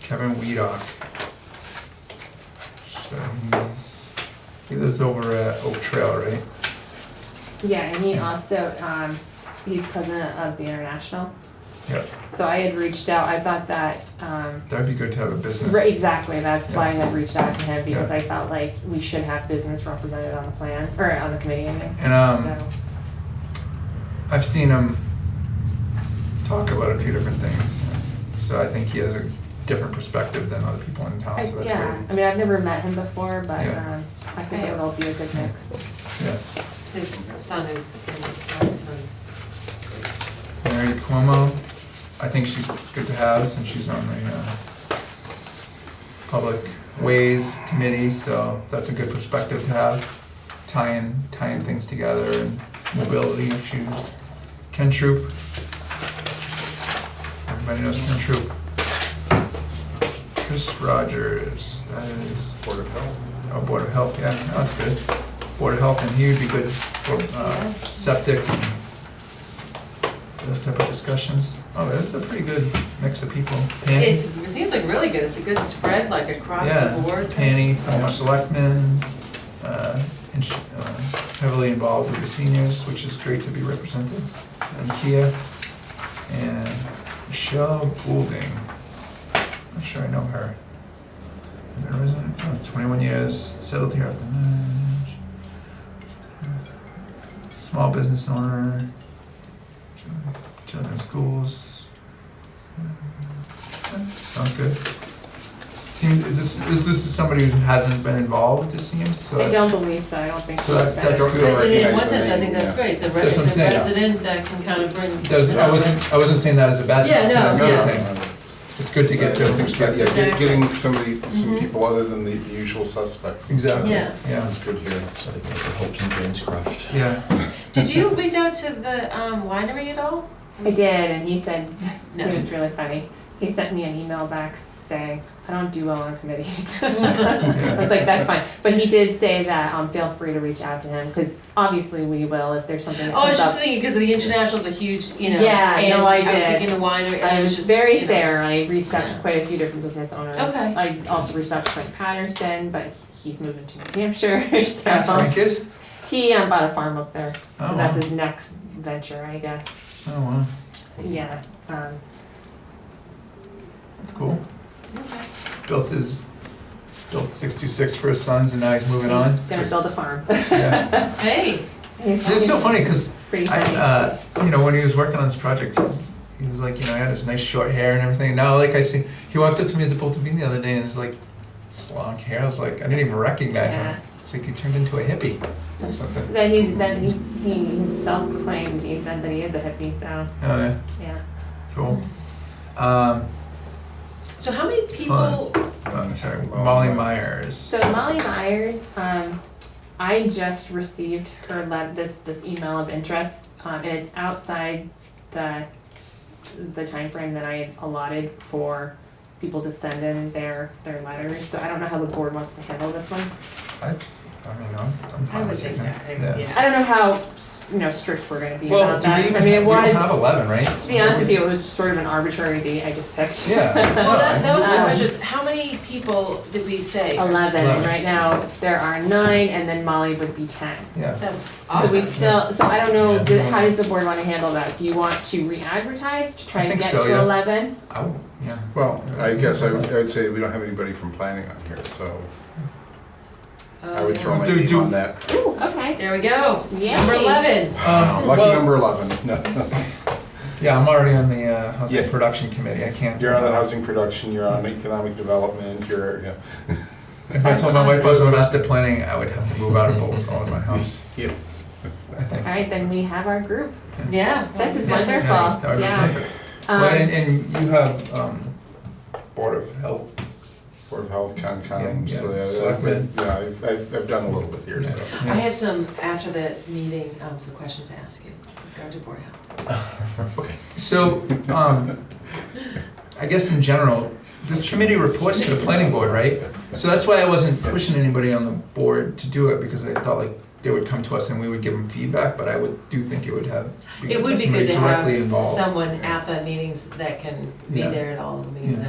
Kevin Weedock. So he's, he lives over at Oak Trail, right? Yeah, and he Yeah. also, um, he's president of the international. Yeah, So I had reached out, I thought that, um, that'd be good to have a business. right, exactly, that's why I had reached out to him, because Yeah. I felt like we should have business represented on the plan, or on the committee, I mean. And, um, So, I've seen him talk about a few different things, so I think he has a different perspective than other people in I- town, Oh, so that's yeah, I great. mean, I've never met him before, but, Yeah. um, I think Yeah. it'll be a good mix. Yeah, His son is, my son's, Mary Cuomo, I think she's good to have since she's on the, uh, Public Ways Committee, so that's a good perspective to have, tying, tying things together and mobility issues. Ken Troop. Everybody knows Ken Troop. Chris Rogers, that is. Board of Health. Oh, Board of Health, yeah, no, that's good. Board of Health, and he would be good for uh, septic and those type of discussions. Oh, that's a pretty good mix of people. Tanny? it's, it seems like really good, it's a good spread, like across the Yeah, board. Tanny, former selectman, uh, in- uh, heavily involved with the seniors, which is great to be represented. And Kia, and Michelle Goulding, I'm sure I know her. Been a resident, oh, 21 years, settled here after marriage. Small business owner, children- children's schools. Yeah, Sounds good. Seems, is this, is this somebody who hasn't been involved, it seems, so I that's don't believe so, I don't think. So that's- he's that's better. good. But in Yeah, one so sense, I they- think that's yeah. great, it's a, re- That's what it's I'm a saying. resident that can kind of bring. That was, it I up. wasn't, I wasn't saying that as a bad thing, Yeah, it's no, another yeah. thing. It's good to get Yeah, different yeah, perspectives. get- Getting Exactly. somebody, some Mhm. people other than the the usual suspects. Exactly, Yeah. yeah, That's good here. So they get their hopes and dreams crushed. yeah. Did you reach out to the um, winery at all? I did, and he said, No. he was really funny. He sent me an email back saying, I don't do well on committees. I was like, that's fine. But he did say that, um, feel free to reach out to him, because obviously we will if there's something that Oh, I was comes just up. thinking, because the international's a huge, you know, Yeah, and no, I was did. thinking the winery, and I it was was just, very you know, fair, I reached out to Yeah. quite a few different business owners. Okay. I also reached out to Frank Patterson, but he's moving to New Hampshire, That's so Frank is? he, um, bought a farm up there. Oh, So wow. that's his next venture, I guess. Oh, wow, Yeah, um, that's cool. Okay. Built his, built six-two-six for his sons and now he's moving on. he's gonna build a farm. Yeah. Hey, He's- It's so funny, cause Pretty I, funny. uh, you know, when he was working on this project, he was, he was like, you know, he had his nice short hair and everything. Now, like I see, he walked up to me at the Bolton Bean the other day and he's like, this long hair, I was like, I didn't even recognize Yeah. him. It's like he turned into a hippie or something. Then he's then he, he he's self-proclaimed. He said that he is a hippie. So Oh, yeah. yeah, Cool. Um, so how many people, Hold oh, sorry, Molly Myers. so Molly Myers, um, I just received her le- this this email of interest, um, and it's outside the the time frame that I had allotted for people to send in their their letters. So I don't know how the board wants to handle this one. I, I mean, I'm, I'm I fine would with take taking that, it. I- I yeah. don't know how you know strict we're going to be Well, about do we that. even, I mean, it we don't was have eleven, right? to be honest with you, it was sort of an arbitrary date I just picked. Yeah. Well, that, that was my Um, question, is how many people did we say? eleven, Eleven. right now, there are nine, and then Molly would be ten. Yeah, That's So we awesome. still, so I don't know, Yeah. do- how does the board wanna handle that? Do you want to re-advertise to I try to think get so, yeah. to eleven? I, would- yeah, Well, I guess I would I would say we don't have anybody from planning on here, so Oh, I would throw my Do- name do- on that. Ooh, okay. There we go, Yay. number eleven. um, Lucky well, number 11. No. Yeah, I'm already on the, uh, housing Yeah. production committee, I can't. You're on the housing production, you're on economic development, you're, yeah. If I told my wife I was on master planning, I would have to move out of Bolton, own my house, Yeah. I think. Alright, then we have our group. Yeah. This is Yeah. wonderful, Yeah, that would be yeah. perfect. Um, Well, and, and you have, um, Board of Health, Board of Health, Concom, Yeah, yeah, so, yeah, selectmen. yeah, I've, I've I've done a little bit here, Yeah. so. I have some, after the meeting, um, some questions to ask you, with regard to board health. So, um, I guess in general, this committee reports to the planning board, right? So that's why I wasn't pushing anybody on the board to do it, because I thought like they would come to us and we would give them feedback, but I would, do think it would have, be It would be somebody good to directly have involved. someone at the meetings that can be Yeah. there at all of the Yeah. meetings